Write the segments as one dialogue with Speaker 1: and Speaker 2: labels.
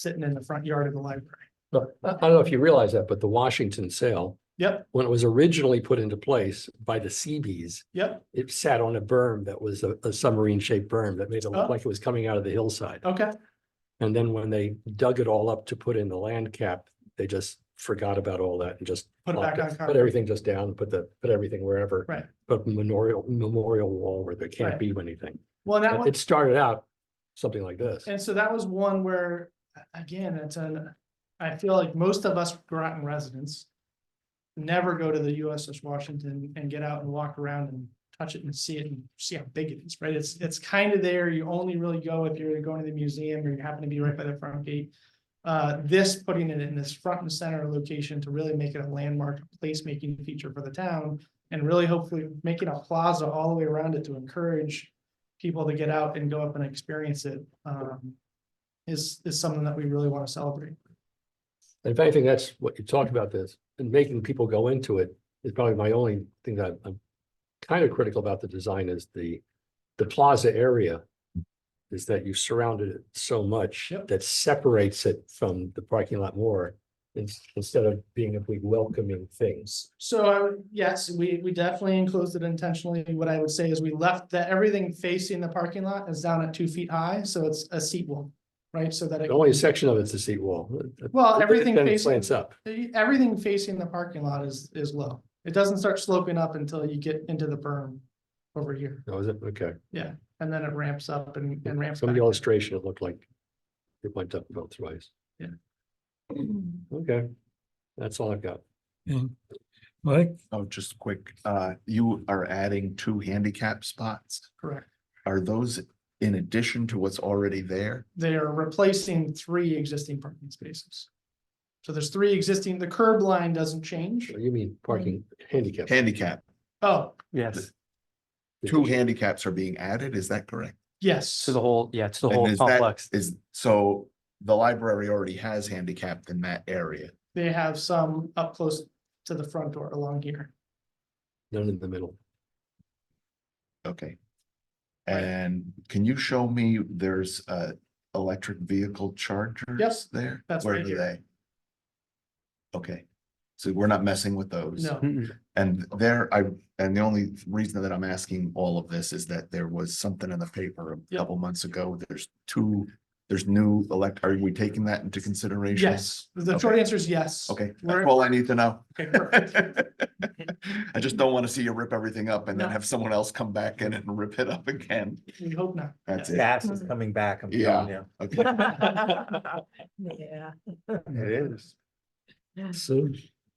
Speaker 1: sitting in the front yard of the library.
Speaker 2: But I I don't know if you realize that, but the Washington sale,
Speaker 1: Yep,
Speaker 2: when it was originally put into place by the Seabees,
Speaker 1: yep,
Speaker 2: it sat on a berm that was a a submarine shaped berm that made it
Speaker 1: Oh.
Speaker 2: look like it was coming out of the hillside.
Speaker 1: okay,
Speaker 2: And then when they dug it all up to put in the land cap, they just forgot about all that and just
Speaker 1: put it back
Speaker 2: plopped
Speaker 1: on.
Speaker 2: it- put
Speaker 1: concrete.
Speaker 2: everything just down, put the, put everything wherever.
Speaker 1: Right.
Speaker 2: But memorial, memorial wall where there
Speaker 1: Right.
Speaker 2: can't be anything.
Speaker 1: Well, and that
Speaker 2: And
Speaker 1: one,
Speaker 2: It started out something like this.
Speaker 1: and so that was one where, a- again, it's an, I feel like most of us Groton residents. Never go to the USS Washington and get out and walk around and touch it and see it and see how big it is, right? It's, it's kind of there. You only really go if you're going to the museum or you happen to be right by the front gate. Uh, this, putting it in this front and center location to really make it a landmark placemaking feature for the town. And really hopefully making a plaza all the way around it to encourage people to get out and go up and experience it. Um, is, is something that we really want to celebrate.
Speaker 2: And If anything, that's what you talked about this and making people go into it is probably my only thing that I'm kind of critical about the design is the, the plaza area is that you surrounded it so much
Speaker 1: Yep.
Speaker 2: that separates it from the parking lot more ins- instead of being a big welcoming things.
Speaker 1: So, I would- yes, we, we definitely enclosed it intentionally. What I would say is we left that everything facing the parking lot is down at two feet high, so it's a seat wall, right? So that it.
Speaker 2: The only section of it's a seat wall.
Speaker 1: Well, everything
Speaker 2: Then it
Speaker 1: facing-
Speaker 2: slants up.
Speaker 1: Everything facing the parking lot is, is low. It doesn't start sloping up until you get into the berm over here,
Speaker 2: Oh, is it? Okay.
Speaker 1: and then it ramps up and, and ramps
Speaker 2: Some
Speaker 1: back.
Speaker 2: of the illustration, it looked like it went up both ways. Okay. That's all I've got.
Speaker 3: Mike,
Speaker 4: Oh, just quick, uh, you are adding two handicap spots.
Speaker 1: Correct.
Speaker 4: Are those in addition to what's already there?
Speaker 1: They are replacing three existing parking spaces. So there's three existing, the curb line doesn't change.
Speaker 2: You mean parking handicap?
Speaker 4: Handicap,
Speaker 1: Oh,
Speaker 5: Yes,
Speaker 4: two handicaps are being added, is that correct?
Speaker 1: yes.
Speaker 5: to the whole, yeah, to the
Speaker 4: And
Speaker 5: whole
Speaker 4: is that-
Speaker 5: complex.
Speaker 4: Is, so the library already has handicapped in that area.
Speaker 1: They have some up close to the front door along here.
Speaker 2: None in the middle.
Speaker 4: Okay.
Speaker 1: Right.
Speaker 4: And can you show me there's uh electric vehicle chargers?
Speaker 1: Yes,
Speaker 4: There?
Speaker 1: that's
Speaker 4: Where
Speaker 1: right
Speaker 4: are
Speaker 1: here.
Speaker 4: they? Okay, so we're not messing with those?
Speaker 1: No,
Speaker 5: Mm-mm.
Speaker 4: And there, I, and the only reason that I'm asking all of this is that there was something in the paper a
Speaker 1: Yep.
Speaker 4: couple months ago, there's two. There's new elect, are we taking that into consideration?
Speaker 1: yes, the short
Speaker 4: Okay.
Speaker 1: answer is yes.
Speaker 4: Okay,
Speaker 1: We're-
Speaker 4: that's all I need to know.
Speaker 1: Okay, perfect.
Speaker 4: I just don't want to see you rip everything up and then
Speaker 1: No.
Speaker 4: have someone else come back in it and rip it up again.
Speaker 1: We hope not.
Speaker 4: That's it.
Speaker 6: Gas is coming back, I'm telling you.
Speaker 4: Okay.
Speaker 7: Yeah.
Speaker 4: It is.
Speaker 2: So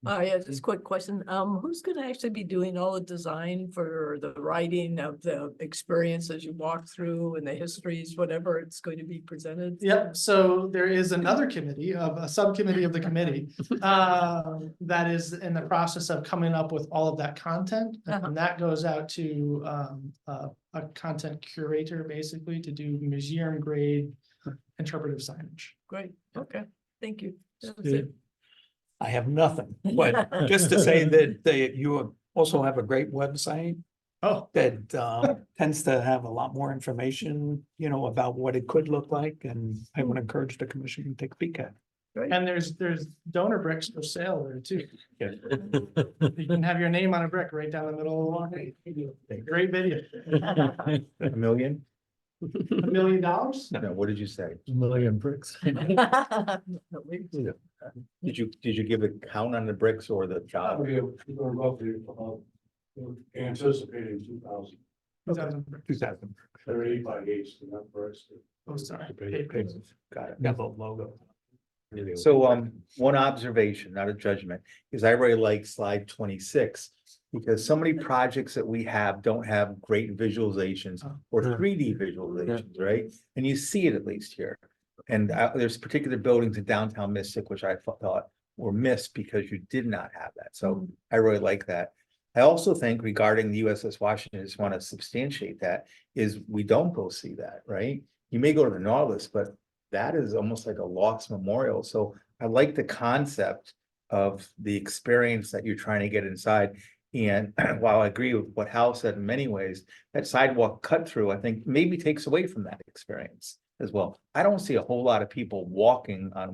Speaker 7: Oh, yeah, just a quick question. Um, who's gonna actually be doing all the design for the writing of the experiences you walk through and the histories, whatever it's going to be presented?
Speaker 1: Yep, so there is another committee of, a subcommittee of the committee, uh, that is in the process of coming up with all of that content.
Speaker 7: Uh-huh.
Speaker 1: And that goes out to, um, a, a content curator basically to do museum grade interpretive signage.
Speaker 7: Great, okay, thank you. That was
Speaker 3: Steve.
Speaker 7: it.
Speaker 6: I have nothing, but just to say that they, you also have a great website
Speaker 1: Oh,
Speaker 6: that um, tends to have a lot more information, you know, about what it could look like, and I would encourage the commission to take a peek at. it.
Speaker 1: and there's, there's donor bricks for sale there too. You can have your name on a brick right down the middle of the walkway. Great video.
Speaker 6: A million?
Speaker 1: A million dollars?
Speaker 6: No, what did you say?
Speaker 3: million bricks.
Speaker 7: Definitely.
Speaker 6: Did you, did you give a count on the bricks or the job?
Speaker 8: Anticipating two thousand,
Speaker 1: Two thousand bricks.
Speaker 6: Two thousand.
Speaker 8: they're eight by eights, and that works.
Speaker 1: Oh, sorry.
Speaker 6: Got it, got the logo.
Speaker 9: So um, one observation, not a judgment, is I really like slide twenty-six. Because so many projects that we have don't have great visualizations
Speaker 1: Oh.
Speaker 9: or
Speaker 2: Yeah.
Speaker 9: three D visualizations, right? And you see it at least here. And uh, there's particular buildings in downtown Mystic, which I thou- thought were missed because you did not have that. So I really like that. I also think regarding the USS Washington, I just want to substantiate that, is we don't go see that, right? You may go to the Nautilus, but that is almost like a lost memorial. So I like the concept of the experience that you're trying to get inside. And while I agree with what Hal said in many ways, that sidewalk cut through, I think maybe takes away from that experience. as well. I don't see a whole lot of people walking on